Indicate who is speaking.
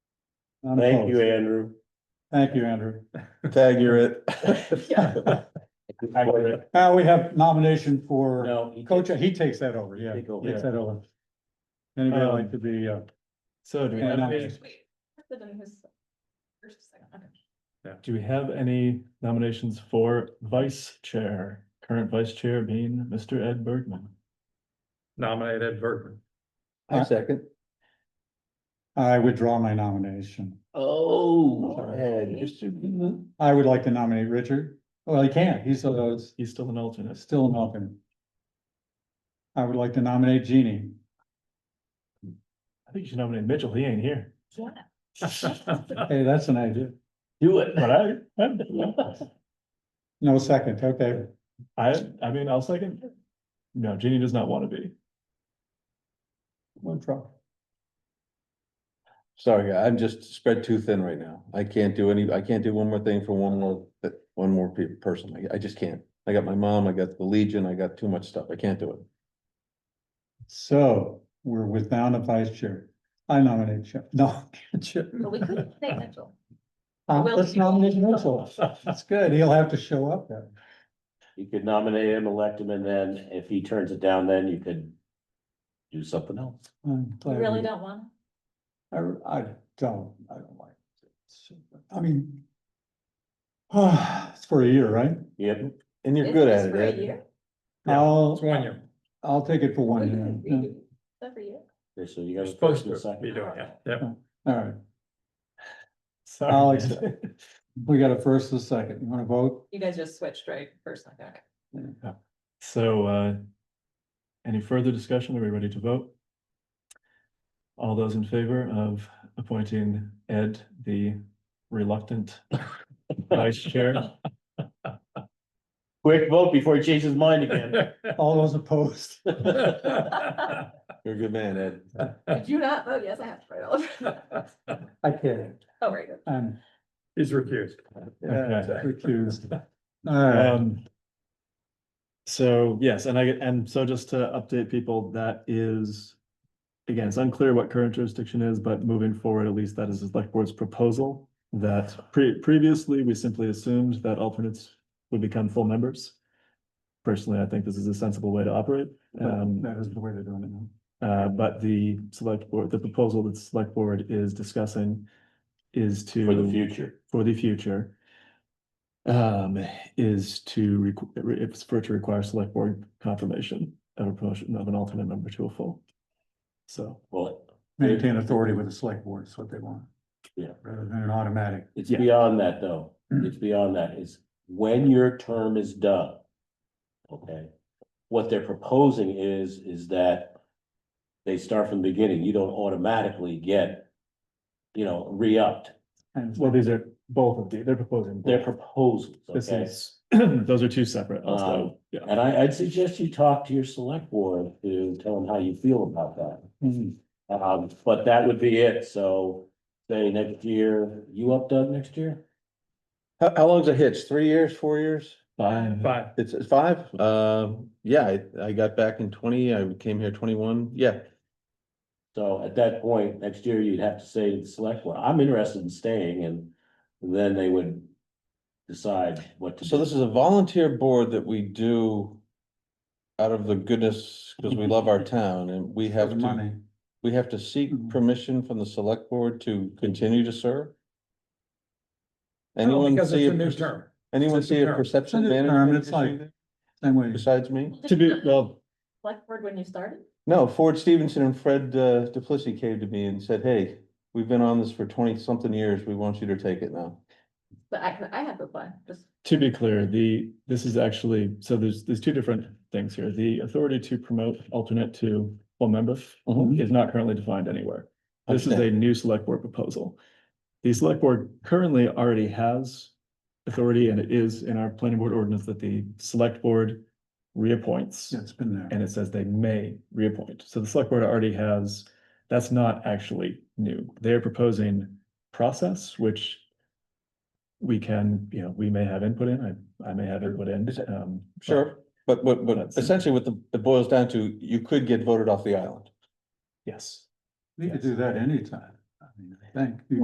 Speaker 1: I'm
Speaker 2: Thank you,
Speaker 1: close.
Speaker 2: Andrew.
Speaker 1: Thank you, Andrew.
Speaker 3: Tag, you're it.
Speaker 1: Now we have nomination for
Speaker 2: No, he-
Speaker 1: coach, he takes that over, yeah,
Speaker 2: Take over.
Speaker 1: takes that over. Anybody
Speaker 2: Um,
Speaker 1: like to be, uh,
Speaker 4: So do we
Speaker 1: Yeah,
Speaker 4: have,
Speaker 1: no.
Speaker 4: any-
Speaker 5: Wait, President who's first, second, okay.
Speaker 4: do we have any nominations for vice chair? Current vice chair being Mr. Ed Bergman.
Speaker 6: Nominate Ed Bergman.
Speaker 3: I second.
Speaker 1: I withdraw my nomination.
Speaker 2: Oh,
Speaker 1: Sorry.
Speaker 2: man, you're so-
Speaker 1: I would like to nominate Richard. Well, he can't, he's uh,
Speaker 4: He's still an alternate.
Speaker 1: still an alternate. I would like to nominate Jeannie.
Speaker 4: I think you should nominate Mitchell. He ain't here.
Speaker 1: Hey, that's an idea.
Speaker 4: Do it. But I, I'm-
Speaker 1: No second, okay.
Speaker 4: I, I mean, I'll second. No, Jeannie does not want to be.
Speaker 1: One drop.
Speaker 3: Sorry, I'm just spread too thin right now. I can't do any, I can't do one more thing for one more, that- one more pe- person. I- I just can't. I got my mom, I got the Legion, I got too much stuff. I can't do it.
Speaker 1: So we're with down a vice chair. I nominate Chip. No, Chip.
Speaker 5: But we could say Mitchell.
Speaker 1: Uh,
Speaker 5: Will
Speaker 1: Let's
Speaker 5: you?
Speaker 1: nominate Mitchell. That's good. He'll have to show up then.
Speaker 2: You could nominate him, elect him, and then if he turns it down, then you could do something else.
Speaker 1: I'm
Speaker 5: We
Speaker 1: glad
Speaker 5: really
Speaker 1: we-
Speaker 5: don't want. him.
Speaker 1: I, I don't, I don't like. it. I mean. it's for a year, right?
Speaker 2: Yep,
Speaker 3: And you're
Speaker 5: It's
Speaker 3: good at
Speaker 5: just
Speaker 3: it,
Speaker 5: for a
Speaker 3: Ed.
Speaker 5: year.
Speaker 6: Yeah,
Speaker 1: I'll,
Speaker 6: It's one year.
Speaker 1: I'll take it for
Speaker 5: We
Speaker 1: one
Speaker 5: could
Speaker 1: year.
Speaker 5: redo that for you.
Speaker 2: so you
Speaker 6: You're
Speaker 2: got. a
Speaker 6: supposed
Speaker 2: first and a
Speaker 6: to
Speaker 2: second.
Speaker 6: be doing it. Yep.
Speaker 1: All right,
Speaker 4: Sorry.
Speaker 1: I'll accept. we got a first and a second. You wanna vote?
Speaker 5: You guys just switched, right? First, second, okay.
Speaker 4: So, uh, any further discussion? Are we ready to vote? All those in favor of appointing Ed, the reluctant vice chair?
Speaker 2: Quick vote before he changes his mind again.
Speaker 1: All those opposed?
Speaker 3: You're a good man, Ed.
Speaker 5: Did you not vote? Yes, I have to write all over.
Speaker 1: I can't.
Speaker 5: Oh, right. good.
Speaker 1: I'm
Speaker 6: He's recused.
Speaker 4: Okay.
Speaker 1: recused. All right,
Speaker 4: Um, so yes, and I, and so just to update people, that is, again, it's unclear what current jurisdiction is, but moving forward, at least that is the select board's proposal. That pre- previously, we simply assumed that alternates would become full members. Personally, I think this is a sensible way to operate. Um,
Speaker 1: that is the way they're doing it now.
Speaker 4: uh, but the select board, the proposal that the select board is discussing is to
Speaker 2: For the future.
Speaker 4: for the future um, is to, requ- if it's for it to require select board confirmation of a promotion of an alternate member to a full. So,
Speaker 2: Well,
Speaker 1: Maintain authority with the select board is what they want.
Speaker 2: Yeah.
Speaker 1: Rather than an automatic.
Speaker 2: it's
Speaker 4: Yeah.
Speaker 2: beyond that, though. It's beyond that. It's when your term is done. Okay? What they're proposing is, is that they start from the beginning. You don't automatically get, you know, re-upped.
Speaker 1: And
Speaker 4: well, these are both of the, they're proposing.
Speaker 2: Their
Speaker 4: both.
Speaker 2: proposals,
Speaker 4: This
Speaker 2: okay?
Speaker 4: is, those are two separate
Speaker 2: Um,
Speaker 4: also, yeah.
Speaker 2: And I, I'd suggest you talk to your select board to tell them how you feel about that.
Speaker 1: Mhm.
Speaker 2: Um, but that would be it, so say next year, you up Doug next year?
Speaker 3: How, how long's a hitch? Three years, four years?
Speaker 4: Fine.
Speaker 6: Five.
Speaker 3: It's it's five? Um, yeah, I, I got back in twenty, I came here twenty-one. Yeah,
Speaker 2: So at that point, next year, you'd have to say to the select board, I'm interested in staying, and then they would decide what to.
Speaker 3: So
Speaker 2: do.
Speaker 3: this is a volunteer board that we do out of the goodness, because we love our town and we have
Speaker 1: the
Speaker 3: to,
Speaker 1: money.
Speaker 3: we have to seek
Speaker 6: Mm-hmm.
Speaker 1: Mhm.
Speaker 3: permission from the select board to continue to serve?
Speaker 6: No,
Speaker 3: Anyone
Speaker 6: Because
Speaker 3: see,
Speaker 6: it's a
Speaker 3: a
Speaker 6: new
Speaker 3: per-
Speaker 6: term.
Speaker 3: anyone
Speaker 6: It's a
Speaker 3: see
Speaker 6: new
Speaker 3: a
Speaker 6: term.
Speaker 3: perception
Speaker 1: It's a new term,
Speaker 3: management
Speaker 1: it's like-
Speaker 3: issue there
Speaker 1: Same way.
Speaker 3: besides me?
Speaker 4: To be, well,
Speaker 5: Select board when you started?
Speaker 3: No, Ford Stevenson and Fred uh, DePlissy came to me and said, hey, we've been on this for twenty-something years. We want you to take it now.
Speaker 5: But I, I had to apply, just.
Speaker 4: To be clear, the, this is actually, so there's, there's two different things here. The authority to promote alternate to full member
Speaker 3: Mhm.
Speaker 4: is not currently defined anywhere. This is a new select board proposal. The select board currently already has authority and it is in our planning board ordinance that the select board reappoints.
Speaker 1: Yeah, it's been there.
Speaker 4: And it says they may reappoint. So the select board already has, that's not actually new. They're proposing process, which we can, you know, we may have input in, I, I may have input in.
Speaker 3: Is it-
Speaker 4: um, but-
Speaker 3: Sure, but what, but
Speaker 4: That's-
Speaker 3: essentially what the, it boils down to, you could get voted off the island.
Speaker 4: Yes.
Speaker 1: We could
Speaker 4: Yes.
Speaker 1: do that anytime, I mean, I think. You